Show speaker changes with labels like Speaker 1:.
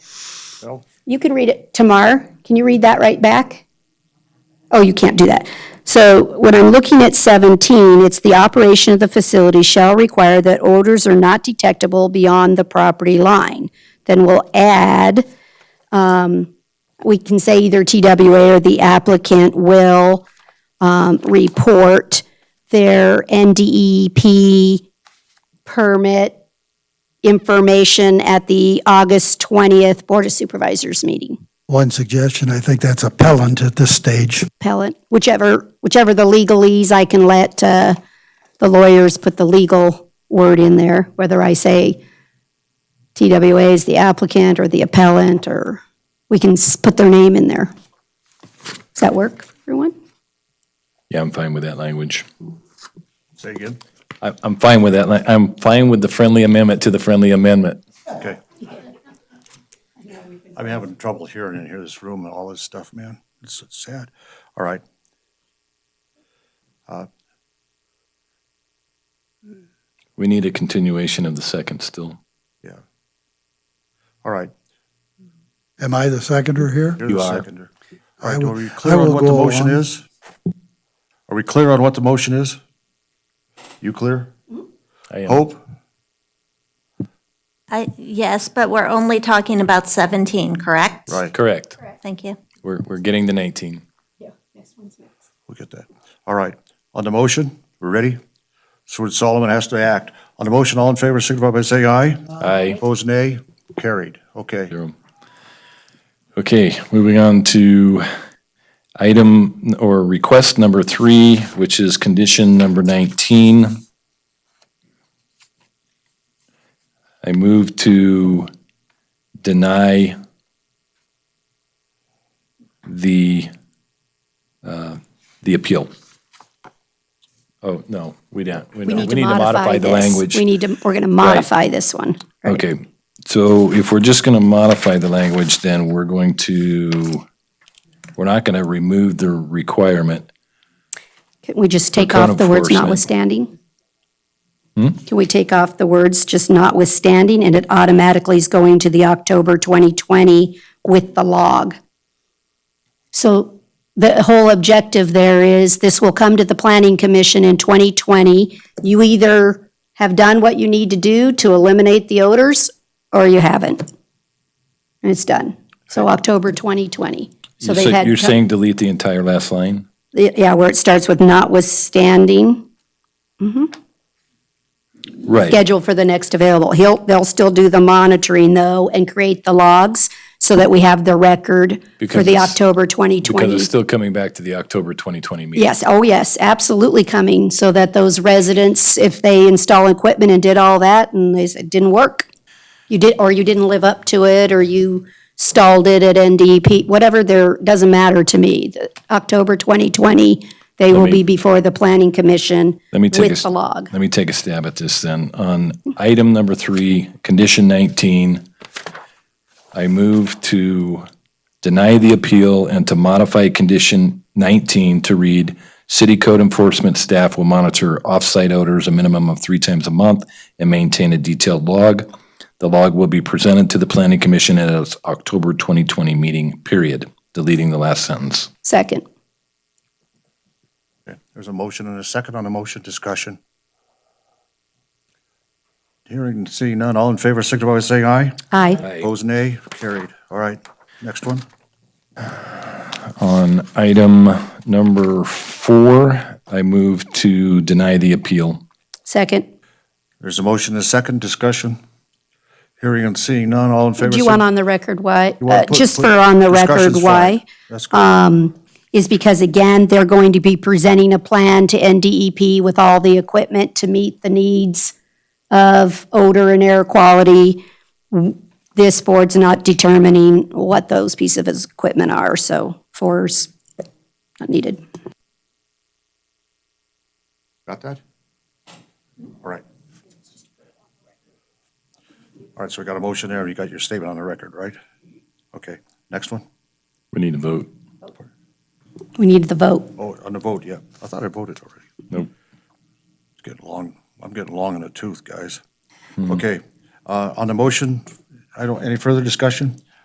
Speaker 1: No?
Speaker 2: You can read it. Tamar, can you read that right back? Oh, you can't do that. So when I'm looking at 17, it's the operation of the facility shall require that odors are not detectable beyond the property line. Then we'll add, um, we can say either TWA or the applicant will um, report their NDEP permit information at the August 20th Board of Supervisors meeting.
Speaker 3: One suggestion, I think that's appellant at this stage.
Speaker 2: Pellet, whichever, whichever the legalese, I can let uh, the lawyers put the legal word in there, whether I say TWA is the applicant or the appellant, or we can s- put their name in there. Does that work, for everyone?
Speaker 4: Yeah, I'm fine with that language.
Speaker 1: Say again?
Speaker 4: I- I'm fine with that. li- I'm fine with the friendly amendment to the friendly amendment.
Speaker 1: Okay. I'm having trouble hearing in here, this room and all this stuff, man. It's it's sad. All right.
Speaker 4: We need a continuation of the second still.
Speaker 1: Yeah. All right.
Speaker 3: Am I the seconder here?
Speaker 1: You're the
Speaker 4: You are.
Speaker 1: seconder. All
Speaker 3: I
Speaker 1: right,
Speaker 3: will-
Speaker 1: are we
Speaker 3: I
Speaker 1: clear on
Speaker 3: will
Speaker 1: what the
Speaker 3: go
Speaker 1: motion
Speaker 3: along.
Speaker 1: is? Are we clear on what the motion is? You clear?
Speaker 4: I am-
Speaker 1: Hope?
Speaker 5: I, yes, but we're only talking about 17, correct?
Speaker 1: Right,
Speaker 4: Correct.
Speaker 5: Thank you.
Speaker 4: We're, we're getting to 19.
Speaker 1: we'll get that. All right. On the motion, we're ready? Stuart Solomon has to act. On the motion, all in favor, signify by saying aye.
Speaker 4: Aye.
Speaker 1: Opposed, nay? Carried. Okay.
Speaker 4: Durham. Okay, moving on to item n- or request number three, which is condition number 19. I move to deny the, uh, the appeal. Oh, no, we don't. We don't. We need to modify the
Speaker 2: this.
Speaker 4: language.
Speaker 2: We need to, we're going to modify this one. right?
Speaker 4: Okay, so if we're just going to modify the language, then we're going to, we're not going to remove the requirement.
Speaker 2: Can we just take
Speaker 4: code
Speaker 2: off the words
Speaker 4: enforcement. Hmm?
Speaker 2: notwithstanding? Can we take off the words just notwithstanding, and it automatically is going to the October 2020 with the log? So the whole objective there is, this will come to the Planning Commission in 2020. You either have done what you need to do to eliminate the odors, or you haven't. And it's done. So October 2020. So
Speaker 4: You're
Speaker 2: they've
Speaker 4: say-
Speaker 2: had.
Speaker 4: you're
Speaker 2: co-
Speaker 4: saying delete the entire last line?
Speaker 2: Yeah, where it starts with notwithstanding.
Speaker 4: Right,
Speaker 2: schedule for the next available. He'll, they'll still do the monitoring though and create the logs so that we have the record for
Speaker 4: Because
Speaker 2: the
Speaker 4: it's-
Speaker 2: October
Speaker 4: because it's
Speaker 2: 2020.
Speaker 4: still coming back to the October 2020 meeting.
Speaker 2: Yes, oh yes, absolutely coming so that those residents, if they install equipment and did all that and they said, didn't work, you did, or you didn't live up to it, or you stalled it at NDEP, whatever there, doesn't matter to me. The October 2020, they will
Speaker 4: me-
Speaker 2: be before the planning commission
Speaker 4: Let me take a
Speaker 2: with
Speaker 4: s-
Speaker 2: the log.
Speaker 4: Let me take a stab at this then. On item number three, condition 19, I move to deny the appeal and to modify condition 19 to read, "City code enforcement staff will monitor off-site odors a minimum of three times a month and maintain a detailed log. The log will be presented to the planning commission at its October 2020 meeting," period, deleting the last sentence.
Speaker 2: Second.
Speaker 1: There's a motion and a second on the motion discussion. Hearing and seeing none, all in favor, signify by saying aye.
Speaker 2: Aye.
Speaker 1: Opposed, nay. Carried. All right, next one.
Speaker 4: On item number four, I move to deny the appeal.
Speaker 2: Second.
Speaker 1: There's a motion and a second discussion. Hearing and seeing none, all in favor.
Speaker 2: Do you want on the record why?
Speaker 1: You wanna
Speaker 2: uh,
Speaker 1: put-
Speaker 2: Just
Speaker 1: put-
Speaker 2: for on the record
Speaker 1: discussion's
Speaker 2: why, um,
Speaker 1: fine. That's good.
Speaker 2: is because again, they're going to be presenting a plan to NDEP with all the equipment to meet the needs of odor and air quality. This board's not determining what those pieces of his equipment are, so fours not needed.
Speaker 1: Got that? All right. All right, so we got a motion there, and you got your statement on the record, right? Okay, next one.
Speaker 4: We need to vote.
Speaker 2: We need the vote.
Speaker 1: Oh, on the vote, yeah. I thought I voted already.
Speaker 4: Nope.
Speaker 1: It's getting long, I'm getting long in the tooth, guys. Okay, uh, on the motion, I don't, any further discussion?